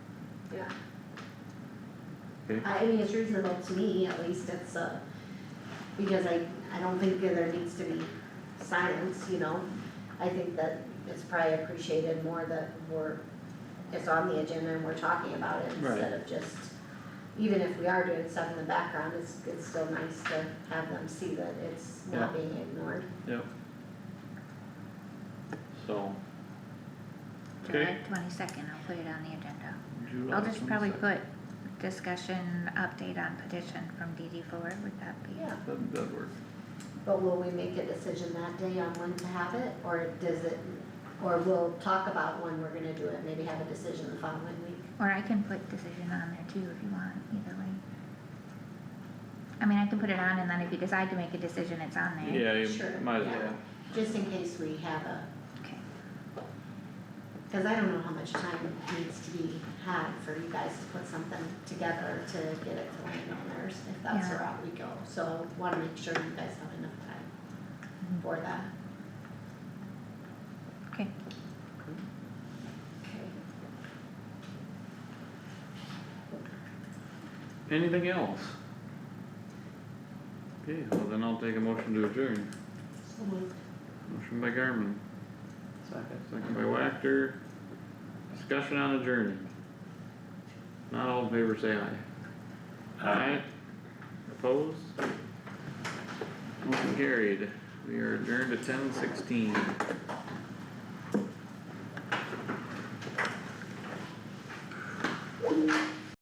Yeah. Okay. I I mean, it's reasonable to me, at least it's uh because I, I don't think there needs to be silence, you know? I think that it's probably appreciated more that we're, it's on the agenda and we're talking about it Right. instead of just, even if we are doing stuff in the background, it's, it's still nice to have them see that it's not being ignored. Yep. So. July Okay. twenty-second, I'll put it on the agenda. July I'll just probably 22nd. put discussion update on petition from DD four, would that be? Yeah, That, that work. but will we make a decision that day on when to have it, or does it, or we'll talk about when we're gonna do it, maybe have a decision the following week? Or I can put decision on there too if you want, either way. I mean, I can put it on and then if you decide to make a decision, it's on there. Yeah, Sure, you might as yeah. well. Just in case we have a, Okay, cause I don't know how much time needs to be had for you guys to put something together to get it to landowners, if that's the Yeah. route we go. So wanna make sure you guys have enough time for that. okay, Okay. Anything else? Okay, well then I'll take a motion to adjourn. So moved. Motion by Garmin, Second. second by Wactor. Discussion on adjourning. Not all in favor, say aye. Aye. Opposed? Motion carried. We are adjourned at ten sixteen.